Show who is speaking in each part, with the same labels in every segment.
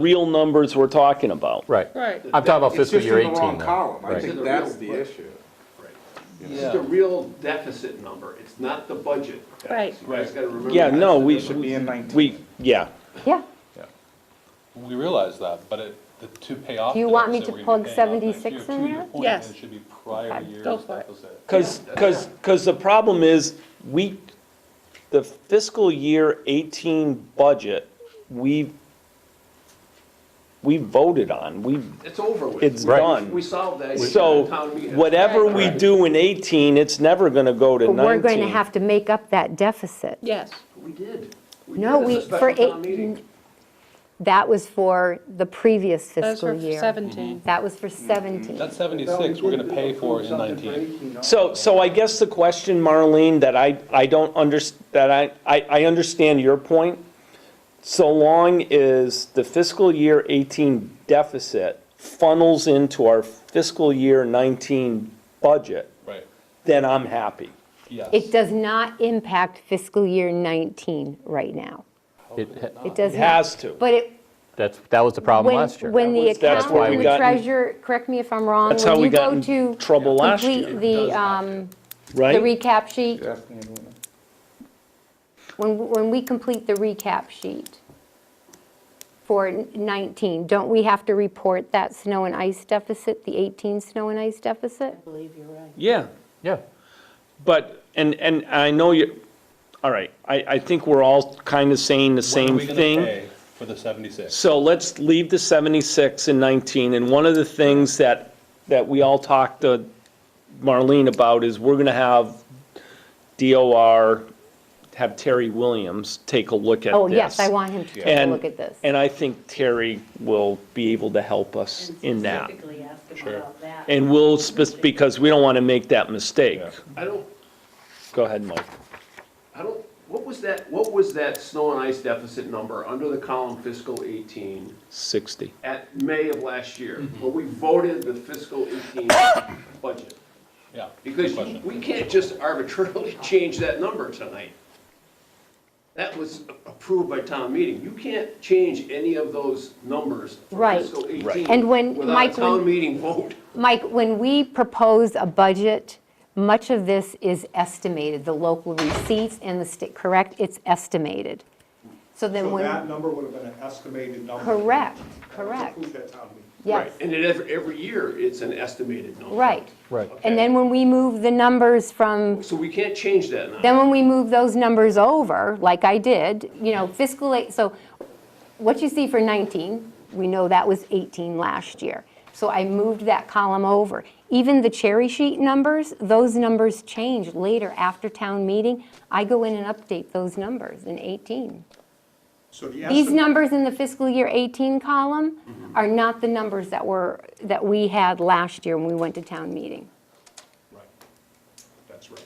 Speaker 1: real numbers we're talking about.
Speaker 2: Right.
Speaker 3: Right.
Speaker 2: I'm talking about fiscal year
Speaker 4: It's just in
Speaker 2: 18
Speaker 4: the wrong
Speaker 2: though.
Speaker 4: column, I
Speaker 2: Right.
Speaker 4: think that's the issue.
Speaker 5: This is the real deficit number, it's not the budget.
Speaker 3: Right.
Speaker 5: You guys gotta remember.
Speaker 1: Yeah,
Speaker 5: that.
Speaker 1: no, we-
Speaker 4: It should be in 19.
Speaker 1: We, yeah,
Speaker 6: Yeah.
Speaker 7: We realize that, but it, the two pay off.
Speaker 6: Do you
Speaker 7: dates
Speaker 6: want me
Speaker 7: that
Speaker 6: to
Speaker 7: we're
Speaker 6: plug
Speaker 7: gonna be paying off next
Speaker 6: 76
Speaker 7: year,
Speaker 6: in
Speaker 7: to your
Speaker 6: there?
Speaker 7: point,
Speaker 3: Yes.
Speaker 7: It should be prior
Speaker 6: Okay,
Speaker 7: year's
Speaker 3: go for it.
Speaker 7: deficit.
Speaker 1: because, because, because the problem is, we, the fiscal year 18 budget, we, we voted on, we,
Speaker 5: It's over with.
Speaker 1: it's
Speaker 2: Right.
Speaker 1: done.
Speaker 5: We solved that.
Speaker 1: So whatever we do in 18, it's never going to go to
Speaker 6: But
Speaker 1: 19.
Speaker 6: we're going to have to make up that deficit.
Speaker 3: Yes.
Speaker 5: We did.
Speaker 6: No,
Speaker 5: did. It's a
Speaker 6: we- for
Speaker 5: special town
Speaker 6: eight-
Speaker 5: meeting.
Speaker 6: That was for the previous
Speaker 3: That was
Speaker 6: fiscal
Speaker 3: for
Speaker 6: year.
Speaker 3: 17.
Speaker 6: That was for 17.
Speaker 7: That seventy-six, we're gonna pay for in nineteen.
Speaker 1: So, so I guess the question, Marlene, that I, I don't under, that I, I, I understand your point. So long as the fiscal year eighteen deficit funnels into our fiscal year nineteen budget,
Speaker 7: Right,
Speaker 1: then I'm happy.
Speaker 7: yes.
Speaker 6: It does not impact fiscal year 19 right now.
Speaker 2: It-
Speaker 6: It does
Speaker 1: It
Speaker 6: not.
Speaker 1: has to.
Speaker 6: But it,
Speaker 2: That's, that was the problem
Speaker 6: when,
Speaker 2: last year.
Speaker 6: when the
Speaker 1: was- that's
Speaker 6: accountant
Speaker 1: why we
Speaker 6: and the
Speaker 1: got in-
Speaker 6: treasurer, correct me if I'm wrong.
Speaker 1: That's
Speaker 6: when
Speaker 1: how we
Speaker 6: you go
Speaker 1: got in
Speaker 6: to
Speaker 1: trouble last year.
Speaker 6: Complete the, um, the
Speaker 1: right?
Speaker 6: recap sheet,
Speaker 4: That's the end of it.
Speaker 6: when, when we complete the recap sheet for 19, don't we have to report that snow and ice deficit, the 18 snow and ice deficit?
Speaker 1: Yeah,
Speaker 2: Yeah.
Speaker 1: but, and, and I know you, all right, I, I think we're all kind of saying the
Speaker 7: When are
Speaker 1: same
Speaker 7: we gonna
Speaker 1: thing.
Speaker 7: pay For the seventy-six.
Speaker 1: So let's leave the 76 and 19, and one of the things that, that we all talked to Marlene about is we're gonna have DOR, have Terry Williams take a look at this.
Speaker 6: Oh, yes, I want him to take a
Speaker 1: And-
Speaker 6: look at this.
Speaker 1: And I think Terry will be able to help us in that.
Speaker 8: Specifically ask them
Speaker 7: Sure.
Speaker 8: about that.
Speaker 1: And we'll, spec- because we don't want to make that mistake.
Speaker 5: I don't,
Speaker 1: Go ahead, Mike.
Speaker 5: I don't, what was that, what was that snow and ice deficit number under the column fiscal eighteen
Speaker 1: 60.
Speaker 5: at May of last year?
Speaker 6: Mm-hmm.
Speaker 5: When we voted the fiscal eighteen budget?
Speaker 7: Yeah. good
Speaker 5: Because
Speaker 7: question.
Speaker 5: we can't just arbitrarily change that number tonight. That was approved by town meeting. You can't change any of those numbers for
Speaker 6: Right.
Speaker 5: fiscal 18.
Speaker 6: And when
Speaker 5: Without a
Speaker 6: Mike-
Speaker 5: town meeting vote.
Speaker 6: Mike, when we propose a budget, much of this is estimated, the local receipts and the state, correct? It's estimated. So then
Speaker 9: So
Speaker 6: when,
Speaker 9: that number would have been an estimated number.
Speaker 6: correct,
Speaker 9: That was
Speaker 6: correct,
Speaker 9: approved at town meeting.
Speaker 6: yes,
Speaker 5: And it, every, every year, it's an estimated number.
Speaker 6: right.
Speaker 2: Right.
Speaker 6: And then when we move the numbers from,
Speaker 5: So we can't change that now.
Speaker 6: then when we move those numbers over, like I did, you know, fiscal, eight- so what you see for 19, we know that was 18 last year. So I moved that column over. Even the cherry sheet numbers, those numbers change later after town meeting. I go in and update those numbers in 18.
Speaker 9: So the
Speaker 6: These
Speaker 9: estimate,
Speaker 6: numbers in the fiscal year 18 column are not the numbers that were, that we had last year when we went to town meeting.
Speaker 9: right, that's right.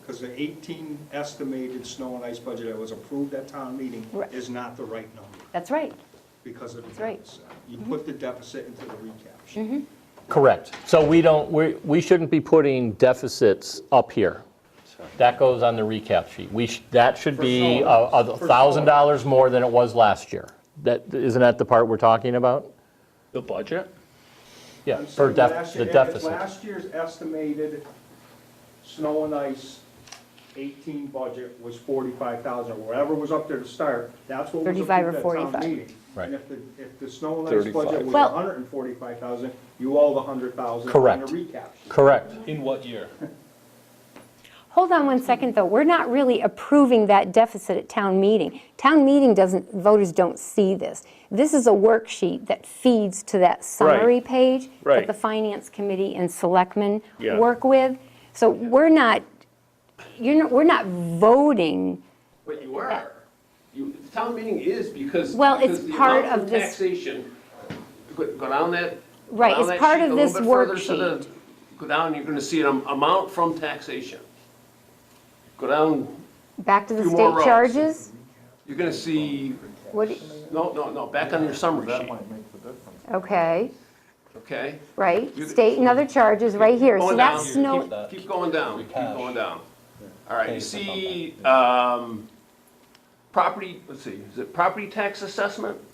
Speaker 9: Because the 18 estimated snow and ice budget that was approved at town meeting
Speaker 6: Right.
Speaker 9: is not the right number
Speaker 6: That's right.
Speaker 9: because of the
Speaker 6: That's right. Mm-hmm.
Speaker 9: deficit. You put the deficit into the recap sheet.
Speaker 2: Correct. So we don't, we, we shouldn't be putting deficits up here. That goes on the recap sheet. We, sh- that should be a a thousand dollars more than it was last year. That, isn't that the part we're talking about?
Speaker 1: The budget?
Speaker 2: Yeah,
Speaker 9: I'm
Speaker 2: for
Speaker 9: saying
Speaker 2: def,
Speaker 9: last
Speaker 2: the
Speaker 9: year- if
Speaker 2: deficit.
Speaker 9: Last year's estimated snow and ice 18 budget was 45,000, or whatever was up there to start, that's what was
Speaker 6: 35 or
Speaker 9: approved at town
Speaker 6: 45.
Speaker 9: meeting.
Speaker 2: Right.
Speaker 9: And if the, if the snow and ice budget
Speaker 1: 35.
Speaker 9: was
Speaker 6: Well-
Speaker 9: 145,000, you owe the 100,000 on
Speaker 2: Correct.
Speaker 9: the recap sheet.
Speaker 2: Correct.
Speaker 7: In what year?
Speaker 6: Hold on one second, though. We're not really approving that deficit at town meeting. Town meeting doesn't, voters don't see this. This is a worksheet that feeds to that summary page
Speaker 1: Right.
Speaker 6: that the finance committee and selectmen
Speaker 1: Yeah.
Speaker 6: work with. So we're not, you're not, we're not voting.
Speaker 5: But you are. You, the town meeting is because.
Speaker 6: Well, it's
Speaker 5: because the
Speaker 6: part
Speaker 5: amount
Speaker 6: of this-
Speaker 5: Taxation, go go down that. go
Speaker 6: Right,
Speaker 5: down
Speaker 6: it's
Speaker 5: that
Speaker 6: part
Speaker 5: sheet
Speaker 6: of
Speaker 5: a little
Speaker 6: this
Speaker 5: bit further to the-
Speaker 6: worksheet.
Speaker 5: Go down, you're gonna see an am- amount from taxation. Go down,
Speaker 6: Back to the
Speaker 5: Few more
Speaker 6: state
Speaker 5: rows.
Speaker 6: charges?
Speaker 5: you're gonna see,
Speaker 6: What, do-
Speaker 5: no, no, no, back on your summary sheet,
Speaker 6: okay,
Speaker 5: okay?
Speaker 6: right?
Speaker 5: You-
Speaker 6: State and other charges, right here. So
Speaker 5: Going
Speaker 6: that's
Speaker 5: down.
Speaker 6: no,
Speaker 7: Keep that.
Speaker 5: Keep going down, keep
Speaker 7: Cash.
Speaker 5: going down. All right, you
Speaker 7: Thanks for
Speaker 5: see, um, property, let's see, is it property tax assessment?